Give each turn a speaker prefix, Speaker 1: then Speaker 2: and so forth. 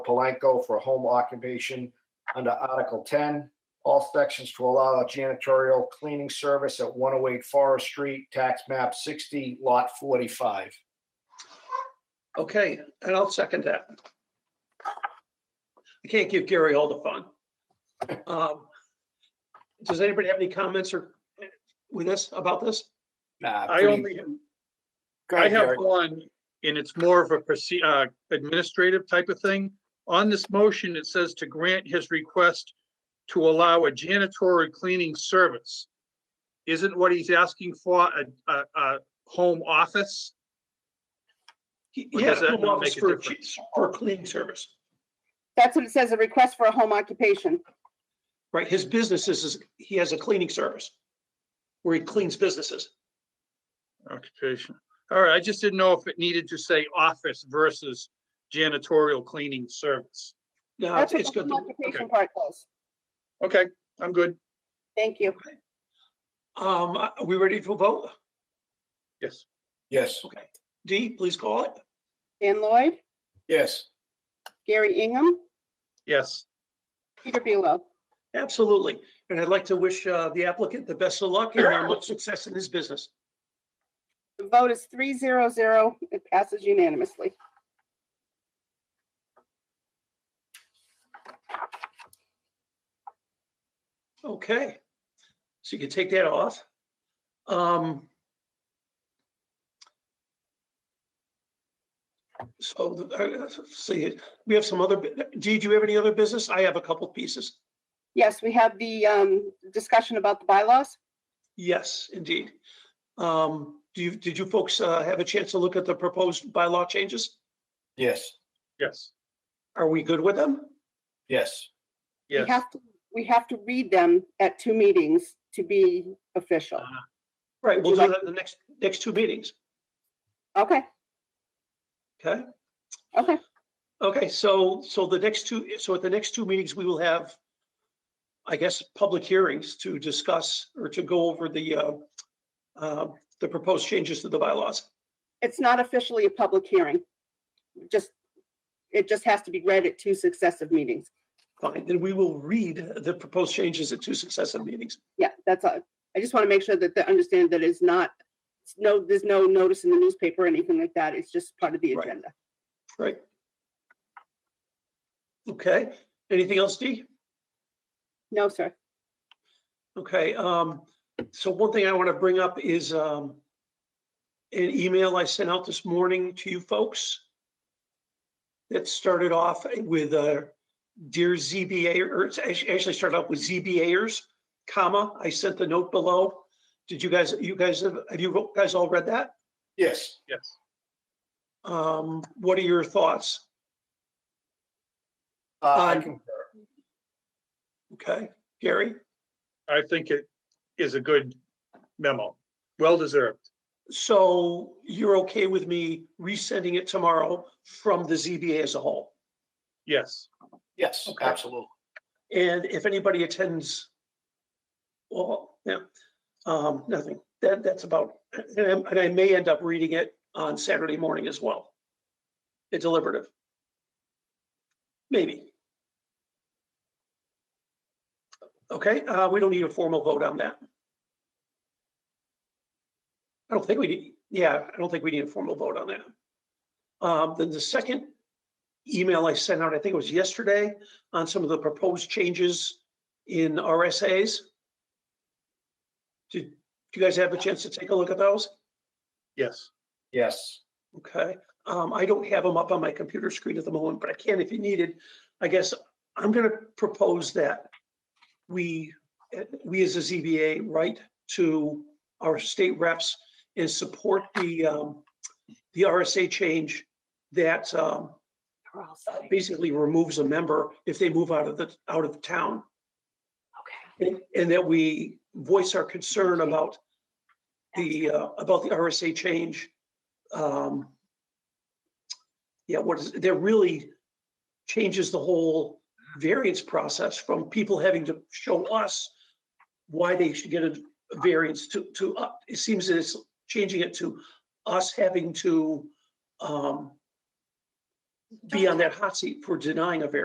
Speaker 1: Palenko for home occupation under Article 10. All sections to allow a janitorial cleaning service at 108 Forest Street, tax map 60, lot 45.
Speaker 2: Okay, and I'll second that. I can't give Gary all the fun. Um, Does anybody have any comments or eh, with us about this?
Speaker 1: Nah,
Speaker 3: I
Speaker 1: pretty-
Speaker 3: only,
Speaker 1: Go
Speaker 3: I
Speaker 1: ahead,
Speaker 3: have
Speaker 1: Gary.
Speaker 3: one, and it's more of a proce- uh, administrative type of thing. On this motion, it says to grant his request to allow a janitorial cleaning service. Isn't what he's asking for a, a, a home office?
Speaker 2: He
Speaker 3: Or
Speaker 2: he has
Speaker 3: does that
Speaker 2: home
Speaker 3: not
Speaker 2: office
Speaker 3: make a
Speaker 2: for a
Speaker 3: difference?
Speaker 2: chi- for a cleaning service,
Speaker 4: That's what it says, a request for a home occupation.
Speaker 2: right? His business is- is, he has a cleaning service where he cleans businesses.
Speaker 3: Occupation. All right, I just didn't know if it needed to say office versus janitorial cleaning service.
Speaker 2: No,
Speaker 4: That's
Speaker 2: Oh, it's it's
Speaker 4: what the
Speaker 2: good.
Speaker 4: home
Speaker 2: to-
Speaker 4: occupation part goes.
Speaker 3: Okay, I'm good.
Speaker 4: Thank you.
Speaker 2: Um, are we ready to vote?
Speaker 3: Yes.
Speaker 1: Yes,
Speaker 2: Okay. Dee, please call it.
Speaker 4: Dan Lloyd,
Speaker 1: yes.
Speaker 4: Gary Ingham,
Speaker 3: Yes.
Speaker 4: Peter Bealow.
Speaker 2: Absolutely. And I'd like to wish uh, the applicant the best of luck and uh, much success in his business.
Speaker 4: The vote is three zero zero. It passes unanimously.
Speaker 2: Okay, so you can take that off. Um. So, the- uh, see, we have some other, bu- Dee, do you have any other business? I have a couple pieces.
Speaker 4: Yes, we have the um, discussion about the bylaws.
Speaker 2: Yes, indeed. Um, do you, did you folks uh, have a chance to look at the proposed bylaw changes?
Speaker 1: Yes,
Speaker 3: Yes.
Speaker 2: Are we good with them?
Speaker 1: yes.
Speaker 4: We
Speaker 3: Yes.
Speaker 4: have to, we have to read them at two meetings to be official.
Speaker 2: Right, we'll
Speaker 4: Would
Speaker 2: do
Speaker 4: you
Speaker 2: that in the next, next two meetings, Uh.
Speaker 4: Okay,
Speaker 2: okay?
Speaker 4: okay.
Speaker 2: Okay, so, so the next two, so at the next two meetings, we will have, I guess, public hearings to discuss or to go over the, uh, uh, the proposed changes to the bylaws.
Speaker 4: It's not officially a public hearing. Just, it just has to be read at two successive meetings.
Speaker 2: Fine, then we will read the proposed changes at two successive meetings.
Speaker 4: Yeah, that's all. I just want to make sure that they understand that it's not, it's no, there's no notice in the newspaper or anything like that. It's just part of the
Speaker 2: Right.
Speaker 4: agenda.
Speaker 2: Right. Okay, anything else, Dee?
Speaker 4: No, sir.
Speaker 2: Okay, um, so one thing I want to bring up is, um, an email I sent out this morning to you folks. That started off with, uh, dear ZBA, or it's actu- actually started off with ZBAers, comma, I sent the note below. Did you guys, you guys, have have you guys all read that?
Speaker 1: Yes,
Speaker 3: Yes.
Speaker 2: Um, what are your thoughts?
Speaker 1: uh, I
Speaker 2: Um,
Speaker 1: concur.
Speaker 2: Okay, Gary?
Speaker 3: I think it is a good memo, well deserved.
Speaker 2: So you're okay with me resending it tomorrow from the ZBA as a whole?
Speaker 3: Yes,
Speaker 1: Yes,
Speaker 2: Okay.
Speaker 1: absolutely.
Speaker 2: And if anybody attends, well, yeah, um, nothing, that, that's about, and I, and I may end up reading it on Saturday morning as well. A deliberative. Maybe. Okay, uh, we don't need a formal vote on that. I don't think we need, yeah, I don't think we need a formal vote on that. Um, then the second email I sent out, I think it was yesterday, on some of the proposed changes in RSAs? Did do you guys have a chance to take a look at those?
Speaker 3: yes.
Speaker 1: Yes,
Speaker 2: Okay, um, I don't have them up on my computer screen at the moment, but I can if you needed. I guess I'm gonna propose that we, eh, we as a ZBA write to our state reps and support the, um, the RSA change that, um, basically removes a member if they move out of the, out of town. Okay. And that we voice our concern about the, uh, about the RSA change. Um Yeah, what is, that really changes the whole variance process from people having to show us why they should get a variance to, to, uh, it seems that it's changing it to us having to um be on that hot seat for denying a variance.